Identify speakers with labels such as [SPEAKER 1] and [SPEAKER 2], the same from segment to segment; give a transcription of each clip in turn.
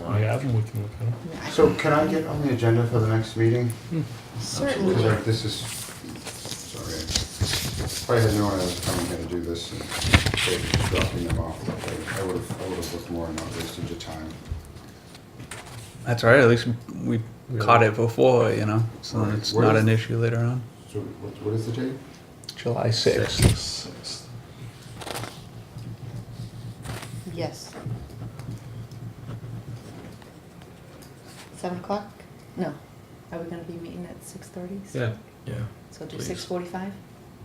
[SPEAKER 1] have and we can look at them.
[SPEAKER 2] So can I get on the agenda for the next meeting? Because
[SPEAKER 3] Certainly.
[SPEAKER 2] like this is, sorry, if I had known I was coming here to do this and they were dropping them off, I- I would have, I would have looked more and not wasted your time.
[SPEAKER 4] That's all right. At least we caught it before, you know, so then
[SPEAKER 2] Right.
[SPEAKER 4] it's
[SPEAKER 2] Where
[SPEAKER 4] not
[SPEAKER 2] is-
[SPEAKER 4] an issue later on.
[SPEAKER 2] So what, what is the date?
[SPEAKER 4] July 6th.
[SPEAKER 3] Yes. Seven o'clock? No. Are we gonna be meeting at six thirty?
[SPEAKER 5] Yeah. Yeah.
[SPEAKER 3] So do
[SPEAKER 5] please.
[SPEAKER 3] six forty-five,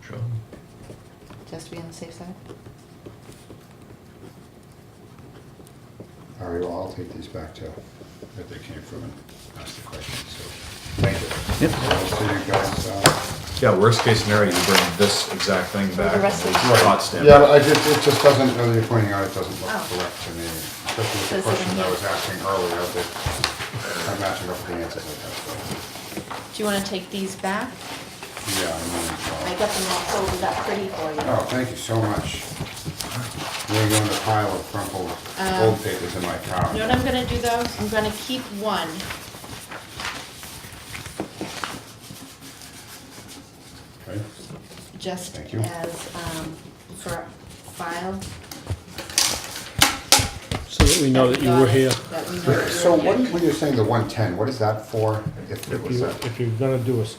[SPEAKER 5] Sure.
[SPEAKER 3] just to be on the safe side?
[SPEAKER 2] All right, well, I'll take these back to where they came from and ask the question, so, thank you.
[SPEAKER 4] Yep.
[SPEAKER 2] I'll see you guys, uh,
[SPEAKER 6] Yeah, worst case scenario, you bring this exact thing back.
[SPEAKER 3] the rest of
[SPEAKER 6] and
[SPEAKER 3] the-
[SPEAKER 6] it's Not stamped.
[SPEAKER 2] Yeah, I just, it just doesn't, now that you're pointing out, it doesn't look
[SPEAKER 3] Oh.
[SPEAKER 2] correct to me, especially
[SPEAKER 3] So
[SPEAKER 2] with the
[SPEAKER 3] it's like
[SPEAKER 2] questions
[SPEAKER 3] a
[SPEAKER 2] I
[SPEAKER 3] hand-
[SPEAKER 2] was asking earlier, that are matching up with the answers I
[SPEAKER 3] Do you wanna take these back?
[SPEAKER 2] got, so, yeah,
[SPEAKER 3] I
[SPEAKER 2] I mean,
[SPEAKER 3] got them all folded up pretty for you.
[SPEAKER 2] uh, oh, thank you so much. We're going to pile of crumpled
[SPEAKER 3] Um,
[SPEAKER 2] old papers in my car.
[SPEAKER 3] You know what I'm gonna do though? I'm gonna keep one.
[SPEAKER 2] Okay.
[SPEAKER 3] just
[SPEAKER 2] Thank you.
[SPEAKER 3] as, um, for file.
[SPEAKER 1] So that we know that you were here.
[SPEAKER 3] That we know that you
[SPEAKER 2] So
[SPEAKER 3] were
[SPEAKER 2] what,
[SPEAKER 3] here.
[SPEAKER 2] what you're saying, the one ten, what is that for, if it
[SPEAKER 1] If
[SPEAKER 2] was
[SPEAKER 1] you,
[SPEAKER 2] that?
[SPEAKER 1] if you're gonna do a, s-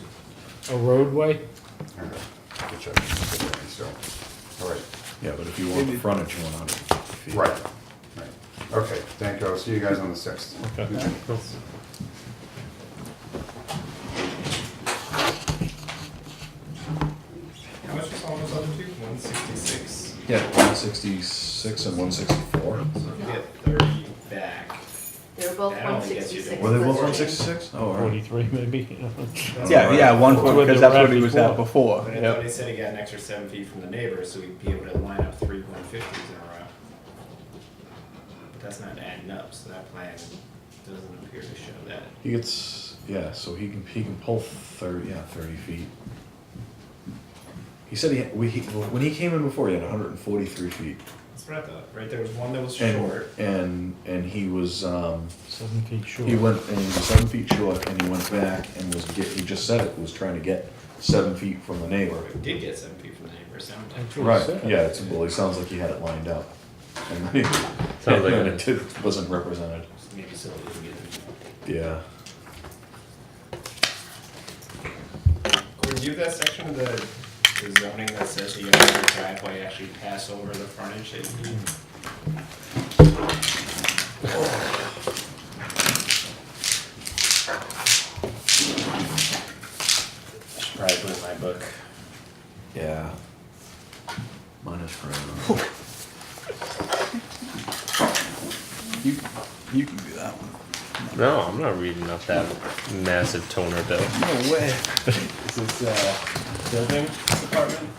[SPEAKER 1] a roadway,
[SPEAKER 2] All right, which I consider, so, all right,
[SPEAKER 6] Yeah, but if you want the frontage, you want hundred feet.
[SPEAKER 2] right, right. Okay, thank you, I'll see you guys on the sixth.
[SPEAKER 1] okay.
[SPEAKER 7] How much was all those other two? One sixty-six.
[SPEAKER 6] Yeah, one sixty-six and one sixty-four.
[SPEAKER 7] So if you get thirty back.
[SPEAKER 3] They were both
[SPEAKER 7] I
[SPEAKER 3] one
[SPEAKER 7] don't think that's you.
[SPEAKER 3] sixty-six.
[SPEAKER 6] Were they both one sixty-six? Oh, all right.
[SPEAKER 1] forty-three maybe.
[SPEAKER 4] Yeah, yeah, one
[SPEAKER 1] That's what they
[SPEAKER 4] because that's what
[SPEAKER 1] were
[SPEAKER 4] he
[SPEAKER 1] at
[SPEAKER 4] was at
[SPEAKER 7] But
[SPEAKER 4] before.
[SPEAKER 7] I thought he
[SPEAKER 4] Yep.
[SPEAKER 7] said he got an extra seven feet from the neighbor, so he'd be able to line up three one fifties in a row. But that's not adding up, so that plan doesn't appear to show that.
[SPEAKER 6] He gets, yeah, so he can, he can pull thirty, yeah, thirty feet. He said he, we, he, when he came in before, he had hundred and forty-three feet.
[SPEAKER 7] That's what I thought, right? There was one that was
[SPEAKER 6] And,
[SPEAKER 7] short.
[SPEAKER 6] and, and he was, um,
[SPEAKER 1] Seven feet short.
[SPEAKER 6] He went and he was seven feet short, and he went back and was get, he just said it was trying to get seven feet from the neighbor.
[SPEAKER 7] Or it did get seven feet from the neighbor, so I'm
[SPEAKER 1] That's
[SPEAKER 7] tempted.
[SPEAKER 1] what he
[SPEAKER 6] Right.
[SPEAKER 1] said.
[SPEAKER 6] Yeah. It's, well, he sounds like he had it lined up, and then
[SPEAKER 5] Sounds like
[SPEAKER 6] and
[SPEAKER 5] it.
[SPEAKER 6] it wasn't represented.
[SPEAKER 7] Maybe so he didn't get them.
[SPEAKER 6] Yeah.
[SPEAKER 7] Review that section of the the zoning that says the other driveway actually pass over the frontage that you need. Should probably put it in my book.
[SPEAKER 6] Yeah. Minus forever.
[SPEAKER 4] You, you can do that one.
[SPEAKER 5] No, I'm not reading up that massive toner bill.
[SPEAKER 6] No way.
[SPEAKER 7] This is, uh, building department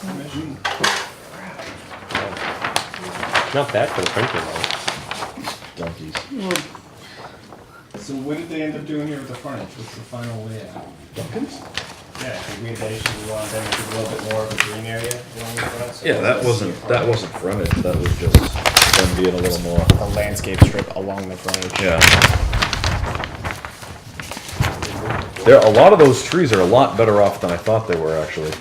[SPEAKER 7] commission.
[SPEAKER 5] Not bad for the printer though.
[SPEAKER 6] Donkeys.
[SPEAKER 7] So what did they end up doing here with the frontage? What's the final layout? Yeah, I think we, they should want them to do a little bit more of a green area along the front. so
[SPEAKER 6] Yeah, that
[SPEAKER 7] it's-
[SPEAKER 6] wasn't that wasn't frontage. That was just them being a little more.
[SPEAKER 7] a landscape strip along the frontage.
[SPEAKER 6] Yeah. There, a lot of those trees are a lot better off than I thought they were, actually.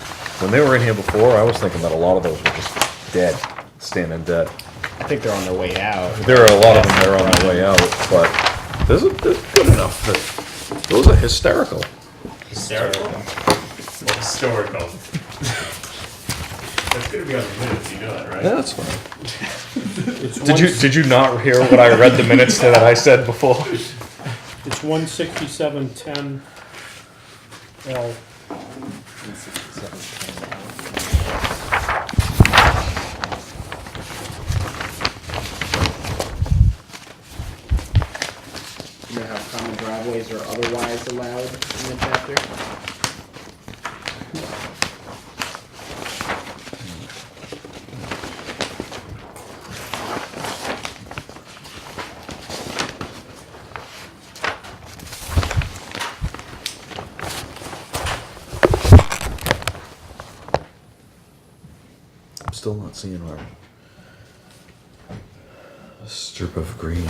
[SPEAKER 6] When they were in here before, I was thinking that a lot of those were just dead, standing dead.
[SPEAKER 7] I think they're on their way out.
[SPEAKER 6] There are a lot of them that are on their way out, but there's, a- there's good enough that, those are hysterical.
[SPEAKER 7] Hysterical?
[SPEAKER 5] Historical.
[SPEAKER 7] That's gonna be on the minutes, you know that, right?
[SPEAKER 6] Yeah, that's fine. Did you, did you not hear what I read the minutes that I said before?
[SPEAKER 1] It's one sixty-seven ten L.
[SPEAKER 8] you know how common driveways are otherwise allowed in the chapter?
[SPEAKER 6] I'm still not seeing where. A strip of green.